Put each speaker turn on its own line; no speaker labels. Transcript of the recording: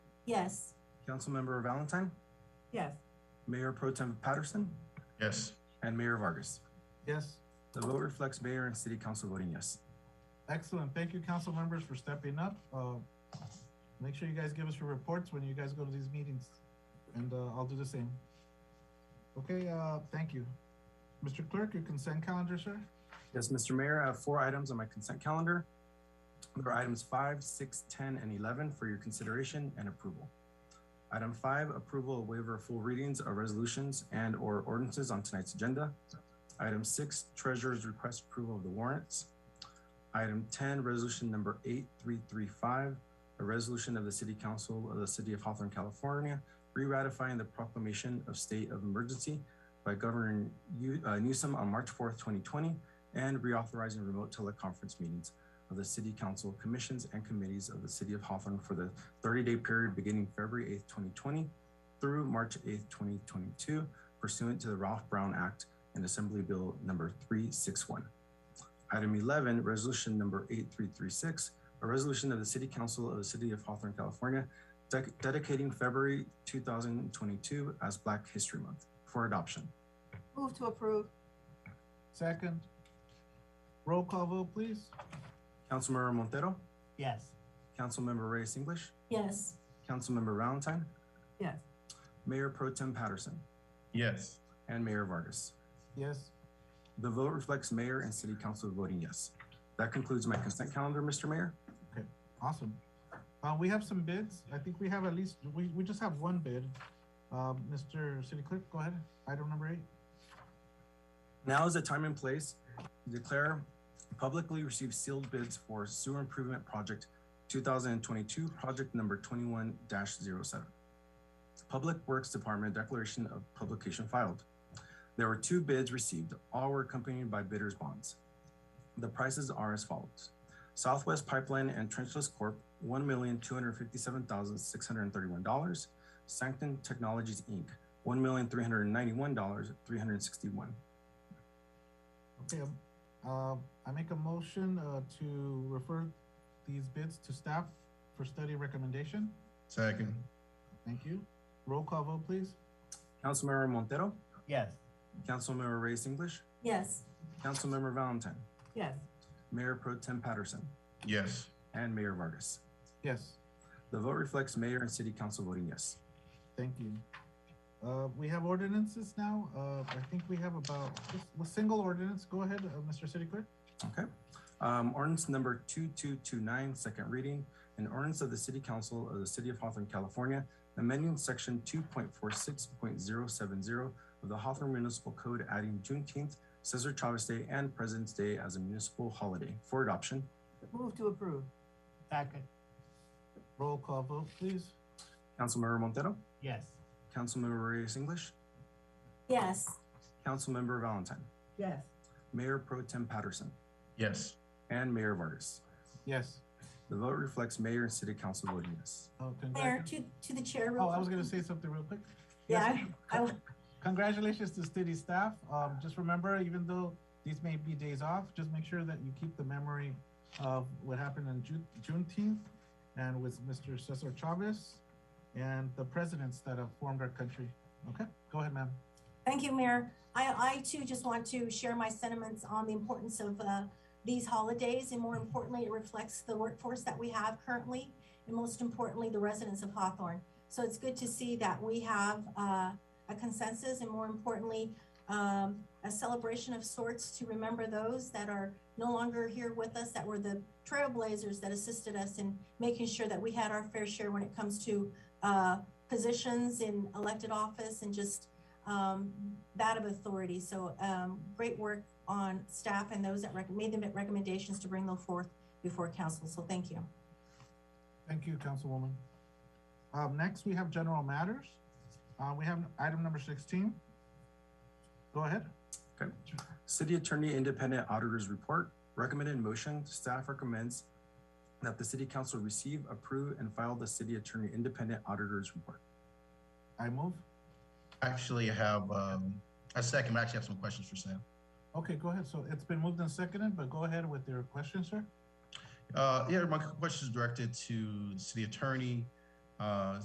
Yes.
Councilmember Valentine,
Yes.
Mayor Pro Tem Patterson,
Yes.
and Mayor Vargas.
Yes,
The vote reflects mayor and city council voting yes.
excellent. Thank you, council members, for stepping up. Uh, Make sure you guys give us your reports when you guys go to these meetings, and uh, I'll do the same. Okay, uh, thank you. Mr. Clerk, your consent calendar, sir?
Yes, Mr. Mayor, I have four items on my consent calendar. There are items five, six, ten, and eleven for your consideration and approval. Item five, approval of waiver of full readings of resolutions and or ordinances on tonight's agenda. Item six, treasurer's request approval of the warrants. Item ten, resolution number eight, three, three, five, a resolution of the city council of the city of Hawthorne, California, re-ratifying the proclamation of state of emergency by Governor New- uh, Newsom on March fourth, twenty twenty, and reauthorizing remote teleconference meetings of the City Council Commissions and Committees of the City of Hawthorne for the 30-day period beginning February 8th, 2020 through March 8th, 2022 pursuant to the Ralph Brown Act and Assembly Bill Number 361. Item 11, Resolution Number 8336, a resolution of the City Council of the City of Hawthorne, California, dec- dedicating February 2022 as Black History Month for adoption.
Move to approve.
Second. Roll call vote, please.
Councilmember Montero,
Yes.
Councilmember Reyes English,
Yes.
Councilmember Valentine,
Yes.
Mayor Pro Tem Patterson,
Yes.
and Mayor Vargas.
Yes,
The vote reflects mayor and city council voting yes. That concludes my consent calendar, Mr. Mayor.
Awesome. Uh, we have some bids. I think we have at least, we, we just have one bid. Uh, Mr. City Clerk, go ahead. Item number eight.
Now is the time and place to declare publicly received sealed bids for sewer improvement project 2022, project number 21-07. Public Works Department declaration of publication filed. There were two bids received. All were accompanied by bidders' bonds. The prices are as follows. Southwest Pipeline and Trenchless Corp., $1,257,631. Sanctum Technologies, Inc., $1,391,361.
Okay, um, uh, I make a motion, uh, to refer these bids to staff for study recommendation.
Second.
Thank you. Roll call vote, please.
Councilmember Montero,
Yes.
Councilmember Reyes English,
Yes.
Councilmember Valentine,
Yes.
Mayor Pro Tem Patterson,
Yes.
and Mayor Vargas.
Yes,
The vote reflects mayor and city council voting yes.
thank you. Uh, we have ordinances now. Uh, I think we have about, just a single ordinance. Go ahead, uh, Mr. City Clerk.
Okay. Um, ordinance number 2229, second reading, an ordinance of the City Council of the City of Hawthorne, California, amending section 2.46.070 of the Hawthorne Municipal Code, adding Juneteenth, Cesar Chavez Day, and President's Day as a municipal holiday for adoption.
Move to approve. Second.
Roll call vote, please.
Councilmember Montero,
Yes.
Councilmember Reyes English,
Yes.
Councilmember Valentine,
Yes.
Mayor Pro Tem Patterson,
Yes.
and Mayor Vargas.
Yes.
The vote reflects mayor and city council voting yes.
Oh,
Mayor,
congratulations.
to, to the chair. real
Oh, I was
quick.
gonna say something real quick.
Yeah,
Yes.
I, I,
Congratulations to city staff. Um, just remember, even though these may be days off, just make sure that you keep the memory of what happened on Ju- Juneteenth and with Mr. Cesar Chavez and the presidents that have formed our country. Okay, go ahead, ma'am.
Thank you, Mayor. I, I too just want to share my sentiments on the importance of uh, these holidays, and more importantly, it reflects the workforce that we have currently, and most importantly, the residents of Hawthorne. So it's good to see that we have uh, a consensus, and more importantly, um, a celebration of sorts to remember those that are no longer here with us, that were the trailblazers that assisted us in making sure that we had our fair share when it comes to uh, positions in elected office and just um, that of authority. So um, great work on staff and those that rec- made the recommendations to bring them forth before council. So thank you.
Thank you, Councilwoman. Um, next, we have general matters. Uh, we have item number sixteen. Go ahead.
City Attorney Independent Auditor's Report, recommended motion, staff recommends that the city council receive, approve, and file the city attorney independent auditor's report.
I move.
Actually have, um, a second, I actually have some questions for Sam.
Okay, go ahead. So it's been moved and seconded, but go ahead with your question, sir.
Uh, yeah, my question is directed to the city attorney. Uh,